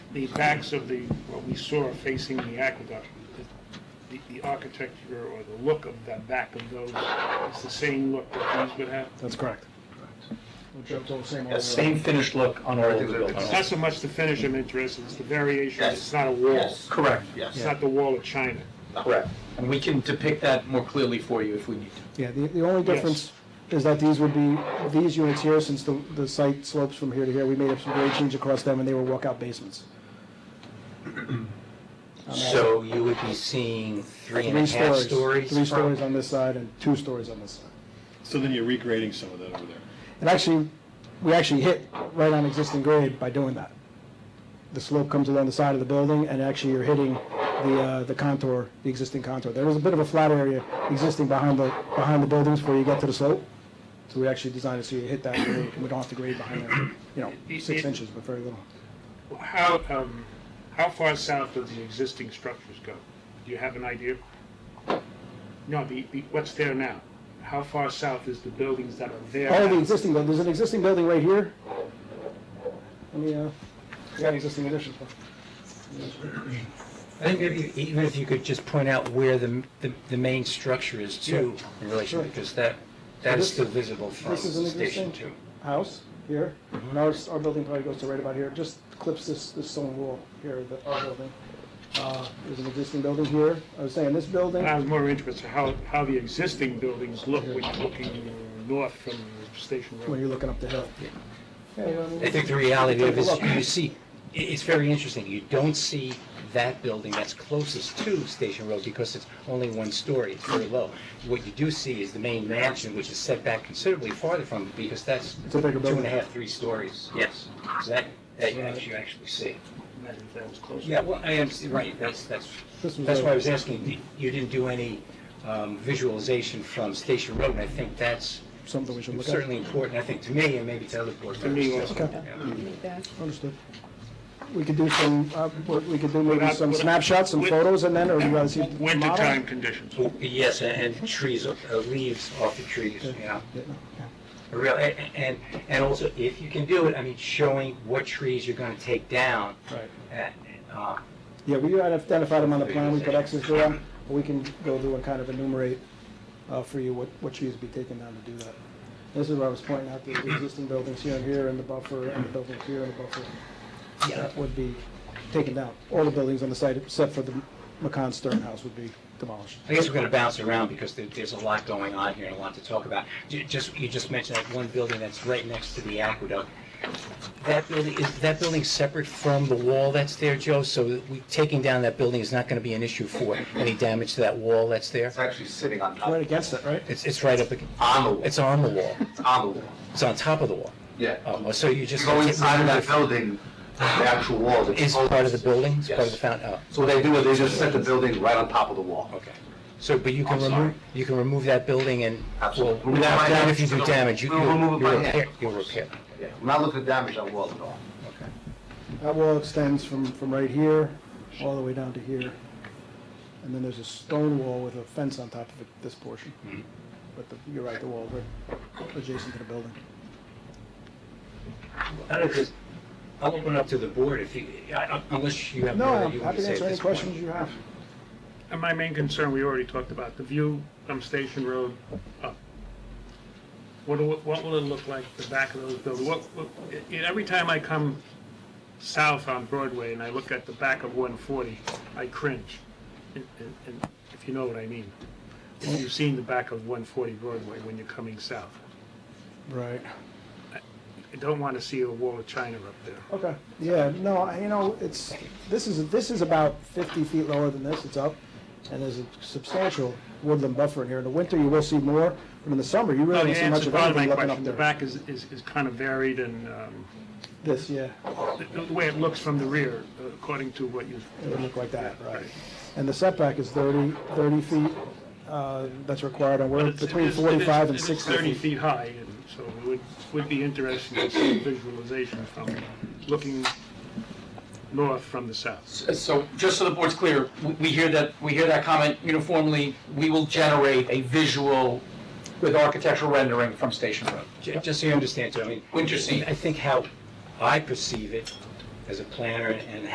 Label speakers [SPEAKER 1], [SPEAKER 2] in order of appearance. [SPEAKER 1] the backs of the, what we saw facing the aqueduct, the, the architecture or the look of the back of those is the same look that these would have?
[SPEAKER 2] That's correct. Which are all same
[SPEAKER 3] Yeah,
[SPEAKER 2] order.
[SPEAKER 3] same finished look on all of the buildings.
[SPEAKER 1] It's not so much the finish I'm interested, in, it's the variation,
[SPEAKER 3] Yes.
[SPEAKER 1] it's not a wall.
[SPEAKER 3] Yes. Correct,
[SPEAKER 1] It's
[SPEAKER 3] yes,
[SPEAKER 1] not the wall of China.
[SPEAKER 3] correct. And we can depict that more clearly for you if we need to.
[SPEAKER 2] Yeah, the, the only difference is that these would be, these units here, since the, the site slopes from here to here, we made up some grade change across them, and they were walkout basements.
[SPEAKER 4] So you would be seeing three and
[SPEAKER 2] Three
[SPEAKER 4] a half
[SPEAKER 2] stories,
[SPEAKER 4] stories?
[SPEAKER 2] three stories
[SPEAKER 4] from-
[SPEAKER 2] on this side and two stories on this side.
[SPEAKER 5] So then you're regrading some of that over there.
[SPEAKER 2] And actually, we actually hit right on existing grade by doing that. The slope comes along the side of the building, and actually you're hitting the, uh, the contour, the existing contour. There is a bit of a flat area existing behind the, behind the buildings before you get to the slope. So we actually designed it so you hit that grade, and we don't have to grade behind that, you know, six inches, but very little.
[SPEAKER 1] How, um, how far south do the existing structures go? Do you have an idea? No, the, the, what's there now? How far south is the buildings that are there?
[SPEAKER 2] Oh, the
[SPEAKER 1] now?
[SPEAKER 2] existing building, there's an existing building right here. Let me, uh, we got an existing addition.
[SPEAKER 4] I think maybe even if you could just point out where the, the, the main structure is too, in relation,
[SPEAKER 2] Sure.
[SPEAKER 4] because that, that
[SPEAKER 2] So
[SPEAKER 4] is
[SPEAKER 2] this-
[SPEAKER 4] still visible from
[SPEAKER 2] This is an
[SPEAKER 4] Station
[SPEAKER 2] existing Mm-hmm.
[SPEAKER 4] Two.
[SPEAKER 2] house here, and ours, our building probably goes to right about here, just clips this, this stone wall here, the, our building. Uh, There's an existing building here, I was saying, this building,
[SPEAKER 1] I was more interested how, how the existing buildings look when you're looking north from Station
[SPEAKER 2] when
[SPEAKER 1] Road.
[SPEAKER 2] you're looking up the hill. Yeah, you know what I
[SPEAKER 4] I
[SPEAKER 2] mean?
[SPEAKER 4] think the reality of it is,
[SPEAKER 2] Take a look.
[SPEAKER 4] you see, i- it's very interesting, you don't see that building that's closest to Station Road because it's only one story, it's very low. What you do see is the main mansion, which is set back considerably farther from it, because that's
[SPEAKER 2] It's
[SPEAKER 4] two
[SPEAKER 2] a bigger
[SPEAKER 4] and
[SPEAKER 2] building.
[SPEAKER 4] a half, three stories. Yes. So That, that you actually actually see.
[SPEAKER 1] Imagine if that was closer.
[SPEAKER 4] Yeah, well, I am, right, that's, that's,
[SPEAKER 2] This was
[SPEAKER 4] that's
[SPEAKER 2] a-
[SPEAKER 4] why I was asking, you didn't do any um, visualization from Station Road, and I think that's
[SPEAKER 2] Something we should look at.
[SPEAKER 4] certainly important, I think, to me, and maybe to other board members.
[SPEAKER 1] me also.
[SPEAKER 2] Okay.
[SPEAKER 4] Yeah.
[SPEAKER 2] Understood. We could do some, uh, we could do maybe
[SPEAKER 1] Without-
[SPEAKER 2] some
[SPEAKER 1] without-
[SPEAKER 2] snapshots, some
[SPEAKER 1] with-
[SPEAKER 2] photos, and then, or you guys see the model?
[SPEAKER 1] Wintertime conditions.
[SPEAKER 4] Oh, Yes, and and trees, uh, leaves off the trees, you know.
[SPEAKER 2] Yeah, yeah.
[SPEAKER 4] Real, a- a- and, and also, if you can do it, I mean, showing what trees you're gonna take down.
[SPEAKER 2] Right.
[SPEAKER 4] Right. Uh,
[SPEAKER 2] Yeah, we identified them on the plan, we could access to them, or we can go through and kind of enumerate uh, for you what, what trees be taken down to do that. This is where I was pointing out the existing buildings here and here, and the buffer, and the buildings here, and the buffer.
[SPEAKER 4] yeah,
[SPEAKER 2] That would be taken down. All the buildings on the site, except for the McCon Stern House, would be demolished.
[SPEAKER 4] I guess we're gonna bounce around because there, there's a lot going on here and a lot to talk about. You just, you just mentioned that one building that's right next to the aqueduct. That building, is that building separate from the wall that's there, Joe? So that we, taking down that building is not gonna be an issue for any damage to that wall that's there?
[SPEAKER 3] It's actually sitting on top,
[SPEAKER 2] Right against it, right?
[SPEAKER 4] It's, it's right up, ag-
[SPEAKER 3] on the wall,
[SPEAKER 4] it's on the wall.
[SPEAKER 3] It's on the wall,
[SPEAKER 4] It's on top of the wall.
[SPEAKER 3] yeah.
[SPEAKER 4] Oh, so you just.
[SPEAKER 3] You go Uh, inside of that building, the actual wall. that's
[SPEAKER 4] Is part of the building, it's part of the
[SPEAKER 3] Yes.
[SPEAKER 4] fountain, oh,
[SPEAKER 3] So what they do is they just set the building right on top of the wall.
[SPEAKER 4] okay. So, but you can
[SPEAKER 3] I'm sorry.
[SPEAKER 4] remove, you can remove that building and, well,
[SPEAKER 3] Absolutely.
[SPEAKER 4] without,
[SPEAKER 3] By
[SPEAKER 4] without
[SPEAKER 3] hand.
[SPEAKER 4] if you do
[SPEAKER 3] We'll-
[SPEAKER 4] damage, you,
[SPEAKER 3] we'll remove
[SPEAKER 4] you'll
[SPEAKER 3] it by
[SPEAKER 4] repair,
[SPEAKER 3] hand.
[SPEAKER 4] you'll repair.
[SPEAKER 3] Yeah, I'm not looking at damage on the wall at all.
[SPEAKER 2] That wall extends from, from right here, all the way down to here. And then there's a stone wall with a fence on top of it, this portion. But the- you're right, the wall, right adjacent to the building.
[SPEAKER 4] I don't know, just, I'll open it up to the board if you, I- I- unless you have
[SPEAKER 2] No,
[SPEAKER 4] more that
[SPEAKER 2] I'm
[SPEAKER 4] you want
[SPEAKER 2] happy to
[SPEAKER 4] to say at
[SPEAKER 2] answer any
[SPEAKER 4] this point.
[SPEAKER 2] questions you have.
[SPEAKER 1] And my main concern, we already talked about, the view from Station Road up. What, do- what will it look like, the back of those buildings? What, what, e- every time I come south on Broadway and I look at the back of 140, I cringe. And, and- and if you know what I mean. You've seen the back of 140 Broadway when you're coming south.
[SPEAKER 2] Right.
[SPEAKER 1] I don't want to see a wall of China up there.
[SPEAKER 2] Okay. Yeah, no, I- you know, it's, this is, this is about 50 feet lower than this, it's up, and there's a substantial woodland buffer in here. In the winter, you will see more, but in the summer, you
[SPEAKER 1] No, the
[SPEAKER 2] really don't see much
[SPEAKER 1] answer
[SPEAKER 2] of
[SPEAKER 1] part of my
[SPEAKER 2] anything looking up
[SPEAKER 1] question, the
[SPEAKER 2] there.
[SPEAKER 1] back is, is, is kind of varied and, um,
[SPEAKER 2] This, yeah,
[SPEAKER 1] the, the way it looks from the rear, uh, according to what you've
[SPEAKER 2] it would look like that, right. And the setback is 30, 30 feet, uh, that's required, and
[SPEAKER 1] But
[SPEAKER 2] we're
[SPEAKER 1] it's- it
[SPEAKER 2] between
[SPEAKER 1] is- it is-
[SPEAKER 2] 45
[SPEAKER 1] it
[SPEAKER 2] and
[SPEAKER 1] is
[SPEAKER 2] 60
[SPEAKER 1] 30
[SPEAKER 2] feet.
[SPEAKER 1] feet high, and so it would, would be interesting to see visualization from looking north from the south.
[SPEAKER 3] S- Uh, So, just so the board's clear, w- we hear that, we hear that comment uniformly, we will generate a visual with architectural rendering from Station Road.
[SPEAKER 4] Ju- Just so you understand, too, I mean.
[SPEAKER 3] Winter seat.
[SPEAKER 4] I think how I perceive it as a planner and